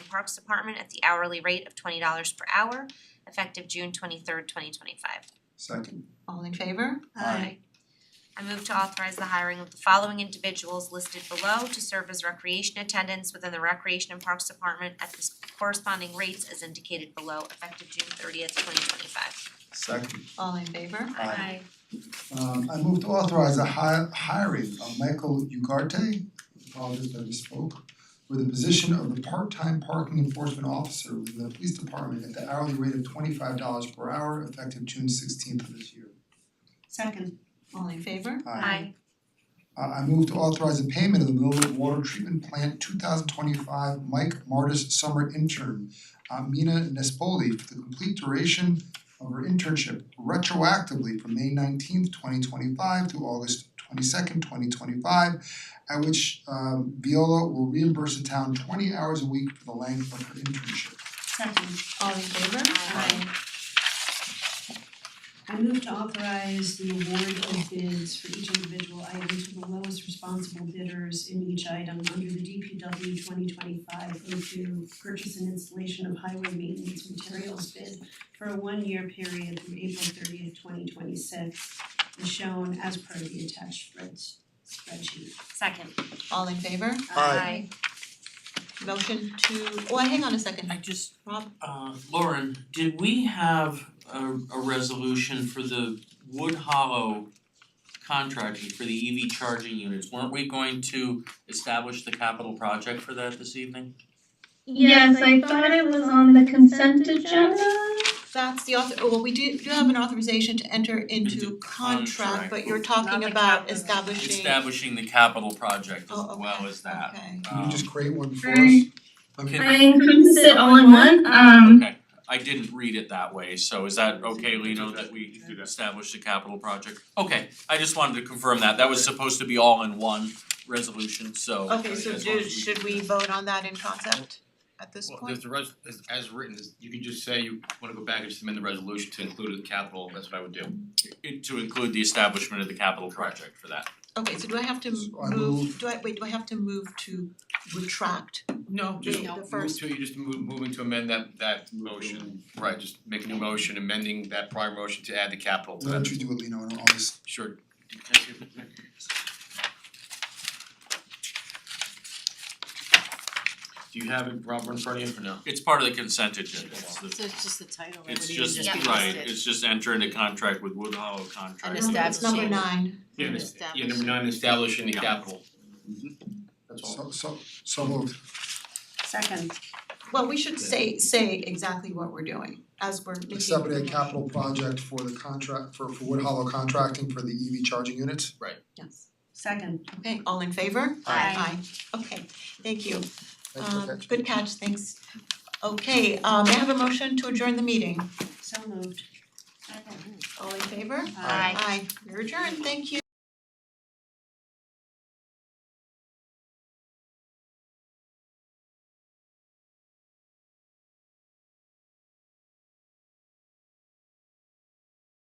Parks Department at the hourly rate of twenty dollars per hour effective June twenty third, twenty twenty five. Second, All in favor? Aye. I move to authorize the hiring of the following individuals listed below to serve as recreation attendants within the Recreation and Parks Department at the corresponding rates as indicated below effective June thirtieth, twenty twenty five. second. All in favor? Aye. Um I move to authorize a hi- hiring of Michael Ugarte, apologies that I misspoke, for the position of the part-time parking enforcement officer within the police department at the hourly rate of twenty-five dollars per hour effective June sixteenth of this year. Second. All in favor? Uh, I move to authorize the payment of the Millwood Water Treatment Plant two thousand twenty-five Mike Martis Summer Intern, Amina Nespoli, for the complete duration of her internship retroactively from May nineteenth, twenty twenty-five to August twenty-second, twenty twenty-five, at which um, Viola will reimburse the town twenty hours a week for the length of her internship. Second, All in favor? Aye. I move to authorize the award of bids for each individual item to the lowest responsible bidders in each item under the DPW twenty twenty five oh two purchase and installation of highway maintenance materials bid for a one year period through April thirtieth, twenty twenty six, as shown as per the attached spreads spreadsheet. Second. All in favor? Aye. Motion to, oh, hang on a second, I just, Rob, uh Lauren, did we have a a resolution for the Wood Hollow contracting for the EV charging units? Weren't we going to establish the capital project for that this evening? Yes, I thought it was on the consent agenda. that's the author, oh, well, we do do have an authorization to enter into Into contract, contract. but you're talking the about capital. establishing, oh, Establishing the capital project as okay, well as that. okay. Can you Um, just create one for us? Aye. I mean, I encompassed it all in one, Um, um, Okay, I didn't read it that way, so is that okay, Lino, that we establish the capital project? Okay, I just wanted to confirm that, that was supposed to be all in one resolution, so Okay, so as long do, as we- should we vote on that in concept at this Well, there's point? the res- as as written, is- you can just say you wanna go back and just amend the resolution to include the capital, that's what I would do. it- to include the establishment of the capital project for that. Okay, so do I have to So I move, do I, wait, do I have to move to retract? No, just The- the move first- to, you're just move moving to amend that that motion, right, just make a new motion, amending that prior motion to add the capital to Why don't that, you do it, Lino, and I'll just sure. Do you have it, Robert, in front of you or no? It's part of the consent agenda, it's the- So it's just the title, it it's would even just, just be listed. right, it's just enter into contract with Wood Hollow contract. And Number- It's number Establishing. nine, Yeah, and it's- yeah, number Establish. nine, establishing the Yeah. capital. That's so all. so so moved. Second, well, we should say say exactly what we're doing as we're making. accepted a capital project for the contract for for Wood Hollow contracting for the EV charging units. Yes, second, okay, all in favor? Aye. Aye, okay, thank you, Thank you for Um, catching. good catch, thanks. Okay, um may I have a motion to adjourn the meeting, so moved. all in favor? Aye. Aye, you're adjourned, thank you.